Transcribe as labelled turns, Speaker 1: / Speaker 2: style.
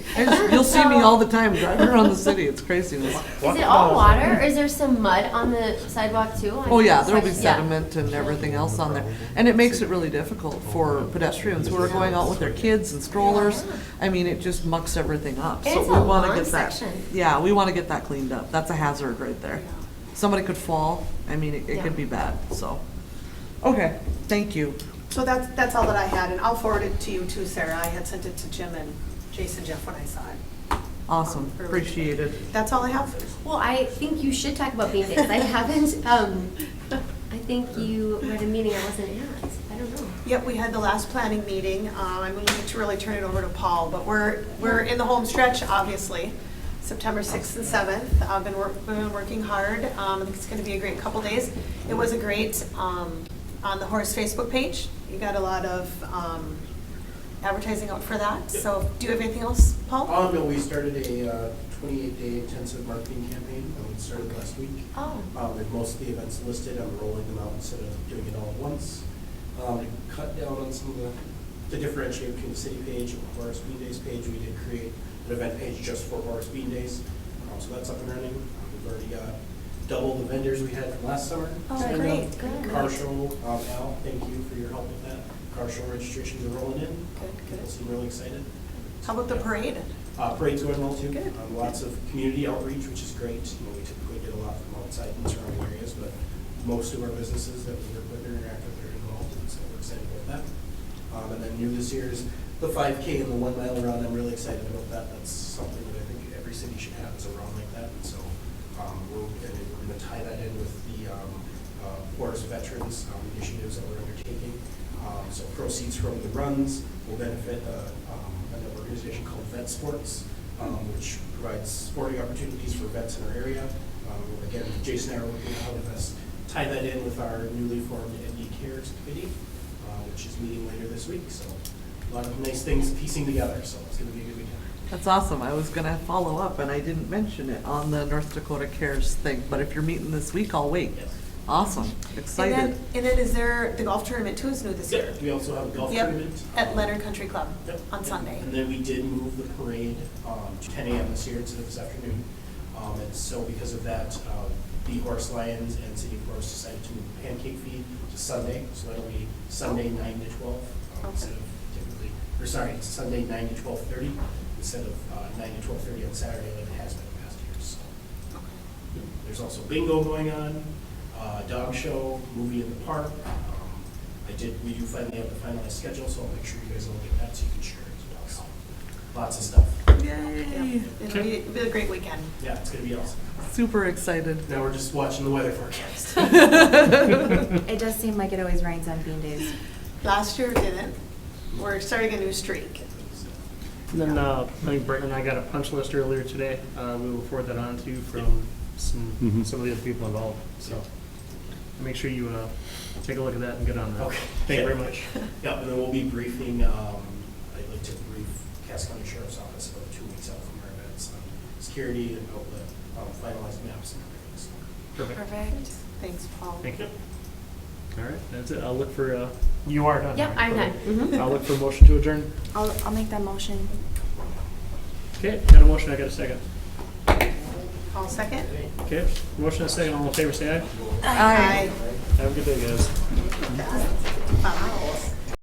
Speaker 1: I just- You'll see me all the time driving around the city, it's craziness.
Speaker 2: Is it all water, or is there some mud on the sidewalk too? I
Speaker 1: Oh, yeah,
Speaker 2: just
Speaker 1: there'll be
Speaker 2: watched- yeah.
Speaker 1: sediment and everything else on there. And it makes it really difficult for pedestrians who are going out with their kids and strollers. I mean, it just mucks everything up. So
Speaker 2: It's
Speaker 1: we
Speaker 2: a
Speaker 1: want to
Speaker 2: long
Speaker 1: get that.
Speaker 2: section.
Speaker 1: Yeah, we want to get that cleaned up. That's a hazard right there. Somebody could fall. I mean, it- it
Speaker 2: Yeah.
Speaker 1: could be bad, so. Okay, thank you.
Speaker 3: So that's, that's all that I had, and I'll forward it to you too, Sarah. I had sent it to Jim and Jason Jeff when I saw it.
Speaker 1: Awesome,
Speaker 3: Or-
Speaker 1: appreciated.
Speaker 3: That's all I have.
Speaker 2: Well, I think you should talk about being because I haven't, um, I think you were at a meeting I wasn't at, I don't know.
Speaker 3: Yep, we had the last planning meeting. Um, I'm looking to really turn it over to Paul, but we're, we're in the home stretch, obviously. September 6th and 7th. I've been, wor- been working hard. Um, I think it's going to be a great couple days. It was a great, um, on the Horace Facebook page. You got a lot of, um, advertising out for that. So do you have anything else, Paul?
Speaker 4: Oh, no, we started a twenty-eight day intensive marketing campaign, um, it started last week.
Speaker 2: Oh.
Speaker 4: Um, with most of the events listed, I'm rolling them out instead of doing it all at once. Um, to cut down on some of the, to differentiate between the city page and Horace Bean Days page, we did create an event page just for Horace Bean Days. Um, so that's up and running, Um, we've already got double the vendors we had from last summer.
Speaker 3: Oh,
Speaker 4: signed up.
Speaker 3: great,
Speaker 2: good.
Speaker 4: Car show, um, Al, thank you for your help with that, car show registrations are rolling in.
Speaker 3: Good, good.
Speaker 4: People seem really excited.
Speaker 3: How about the parade?
Speaker 4: Uh, Parade's going well too.
Speaker 3: Good.
Speaker 4: Um, Lots of community outreach, which is great. You know, we typically get a lot from outside and surrounding areas, but most of our businesses that we work with or interact with are involved, and so we're excited about that. Um, And then new this year is the five K and the one mile run. I'm really excited about that. That's something that I think every city should have is a run like that. And so um, we're, and we're gonna tie that in with the um, uh, Forest Veterans um, initiatives that we're undertaking. Um, So proceeds from the runs will benefit uh, um, an organization called Vet Sports, um, which provides sporting opportunities for vets in our area. Um, Again, Jason and I are working on how to best tie that in with our newly formed ND Cares Committee, uh, which is meeting later this week. So a lot of nice things piecing together, so it's going to be a good weekend.
Speaker 1: That's awesome. I was gonna follow up and I didn't mention it on the North Dakota Cares thing, but if you're meeting this week, I'll wait.
Speaker 4: Yes.
Speaker 1: Awesome,
Speaker 3: And
Speaker 1: excited.
Speaker 3: then, and then is there, the golf tournament too is new this year?
Speaker 4: We also have a golf
Speaker 3: Yep,
Speaker 4: tournament.
Speaker 3: At
Speaker 4: um,
Speaker 3: Leonard Country Club
Speaker 4: Yep.
Speaker 3: on Sunday.
Speaker 4: And then we did move the parade um, to 10 AM this year instead of this afternoon. Um, And so because of that, um, the Horse Lions and City of Forest decided to move Pancake Feed to Sunday. So that'll be Sunday
Speaker 3: Oh.
Speaker 4: 9 to 12 um, instead of typically, or sorry, it's Sunday 9 to 12:30 instead of uh, 9 to 12:30 on Saturday like it has been past years. So There's also bingo going on, uh, dog show, movie in the park. Um, I did, we do finally have the finalized schedule, so I'll make sure you guys all get that so you can share it as well. So, Lots of stuff.
Speaker 1: Yay,
Speaker 3: Yeah. It'll be, it'll be a great weekend.
Speaker 4: Yeah, it's gonna be awesome.
Speaker 1: super excited.
Speaker 4: Now we're just watching the weather forecast.
Speaker 5: It does seem like it always rains on bean days.
Speaker 3: Last year it didn't. We're starting a new streak.
Speaker 6: And then, uh, I think Brent and I got a punch list earlier today, uh, we will forward that on to you from some, some of the other people involved, so. Make sure you, uh, take a look at that and get on that.
Speaker 4: Okay.
Speaker 6: Thank you very much.
Speaker 4: Yeah, and then we'll be briefing, um, I'd like to brief Cass County Sheriff's Office about two weeks out from our events on security and outlet, um, finalized maps and everything, so.
Speaker 6: Perfect,
Speaker 3: Perfect. Thanks, Paul.
Speaker 6: thank you. All right, that's it, I'll look for, uh, you are done.
Speaker 2: Yep,
Speaker 6: right?
Speaker 2: I'm done.
Speaker 6: Okay. I'll look for a motion to adjourn.
Speaker 5: I'll, I'll make that motion.
Speaker 6: Okay, got a motion, I got a second.
Speaker 3: Paul, second?
Speaker 6: Okay, motion and a second, all in favor, say aye.
Speaker 3: Aye.
Speaker 6: Have a good day, guys.
Speaker 3: Fast.